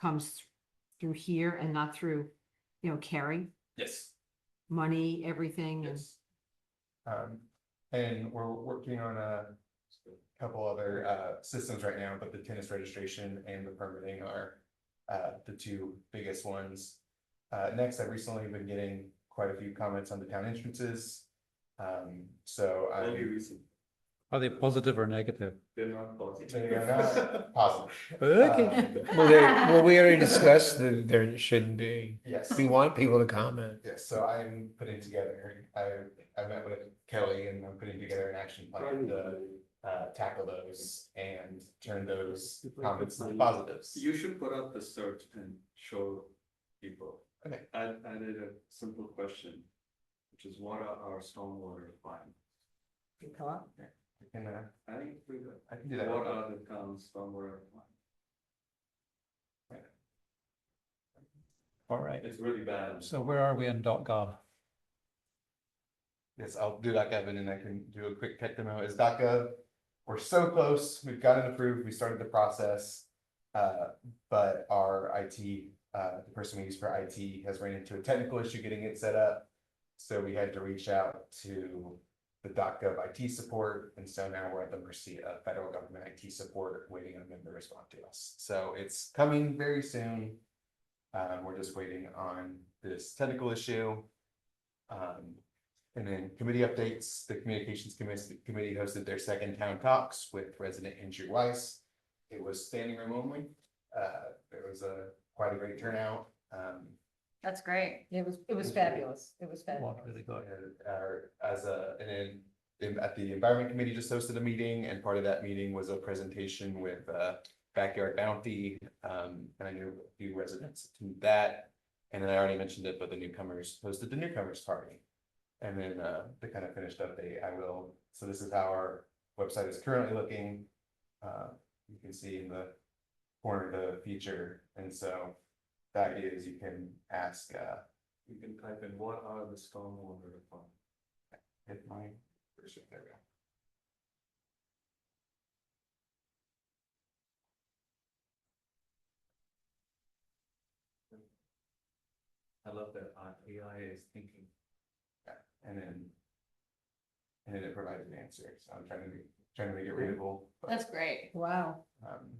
comes through here and not through, you know, carry Yes, money, everything and yes. Um, and we're working on a couple other, uh, systems right now, but the tennis registration and the permitting are, uh, the two biggest ones. Uh, next, I've recently been getting quite a few comments on the town entrances. Um, so Only I'm reason, Are they positive or negative? they're not positive. They are not positive. Uh, Okay, Um, well, they, well, we already discussed that there shouldn't be, Yes. we want people to comment. Yes, so I'm putting together, I, I met with Kelly and I'm putting together an action plan to, uh, tackle those and turn those comments into positives. You should put out the search and show people. Okay. I added a simple question, which is what are our stormwater requirements? I can, uh, I think it's pretty good. I can do that. What are the town's stormwater requirements? All right. It's really bad. So where are we in dot gov? Yes, I'll do that, Kevin, and I can do a quick tech demo. Is DACA, we're so close, we've got it approved, we started the process. Uh, but our IT, uh, the person we use for IT has ran into a technical issue getting it set up. So we had to reach out to the DACA IT support, and so now we're at the mercy of federal government IT support, waiting on them to respond to us. So it's coming very soon. Uh, we're just waiting on this technical issue. Um, and then committee updates, the communications committee, committee hosted their second town talks with resident Andrew Weiss. It was standing room only, uh, there was a, quite a great turnout, um, That's great. It was, it was fabulous. It was fabulous. What really got? and, uh, as a, and then. in- At the environment committee just hosted a meeting and part of that meeting was a presentation with, uh, backyard bounty. Um, and I knew a few residents to that, and then I already mentioned it, but the newcomers hosted the newcomers party. And then, uh, the kind of finished update, I will, so this is how our website is currently looking. Uh, you can see in the corner the feature, and so the idea is you can ask, uh, You can type in what are the stormwater requirements? hit my, there we go. I love that our AI is thinking. And then. And then it provides an answer, so I'm trying to be, trying to make it readable. but, That's great. Wow, um,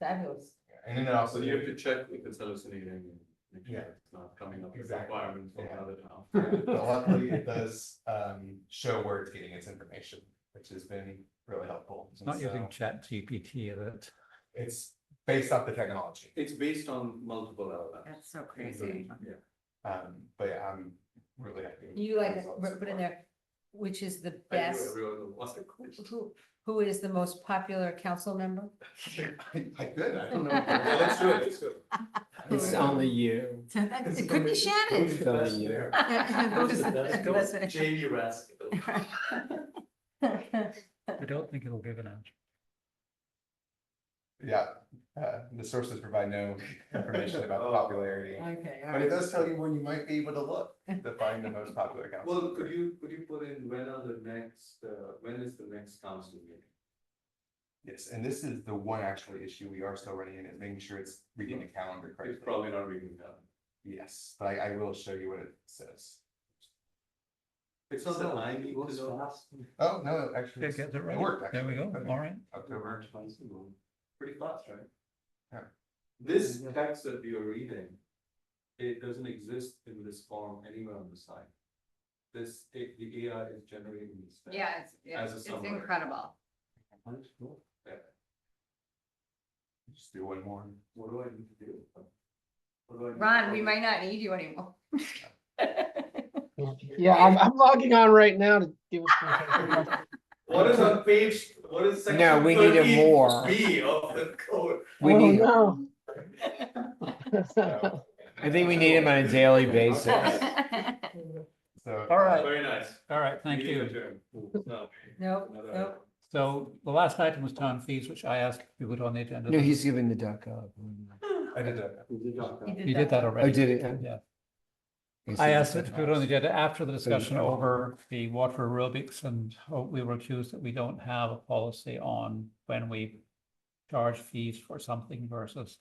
fabulous. yeah, And then it also, So you have to check if it's hallucinating. and make sure Oh, Yeah. It's not coming up with Exactly. requirements from Yeah. another town. but luckily it does, um, show where it's getting its information, which has been really helpful. It's not And using so chat GPT, is it? It's based off the technology, It's based on multiple elements. That's so crazy. Yeah. um, but yeah, I'm really happy. with You the like, results so put in far. there, which is the I knew best, everyone would want a question. who, who is the most popular council member? I could, I don't know. Well, Let's do it, let's do it. It's um, only you. It could be Shannon. It's only you. That's it. Jamie Raskin. I don't think it'll give an answer. Yeah, uh, the sources provide no information about the popularity. Oh, Okay, all But right. it does tell you when you might be able to look to find the most popular council. Well, member. could you, could you put in when are the next, uh, when is the next council meeting? Yes, and this is the one actual issue we are still running in, is making sure it's reading the calendar It's correctly. probably not reading that. Yes, but I, I will show you what it says. It's not that I need to know. Oh, no, actually, Okay, it's- get it it right. worked. There we actually. go. Okay. All right. October. twice a month. Pretty fast, right? Yeah. This text that we are reading, it doesn't exist in this form anywhere on the site. This, it- the AI is generating this. text. Yeah, it's, yeah, As a it's summary. incredible. Yeah. Just do one more. What do I need to do? What do I need to Ron, we follow? might not need you anymore. Yeah, I'm, I'm logging on right now to deal with. What is on page, what is section? No, we need it 13 more. B of the code. We Oh, need, No. So- I think we need him on a daily basis. So. All right. Very nice. All right, thank Meeting you. Oh. adjourned. No, Nope, another nope. item. So the last item was town fees, which I asked you put on the agenda. No, he's giving the duck up. I did that. You did that already. Oh, did it? Okay. Yeah. He's I giving asked the it to duck put on up. the agenda after the discussion over the water aerobics and oh, we were accused that we don't have a policy on when we charge fees for something versus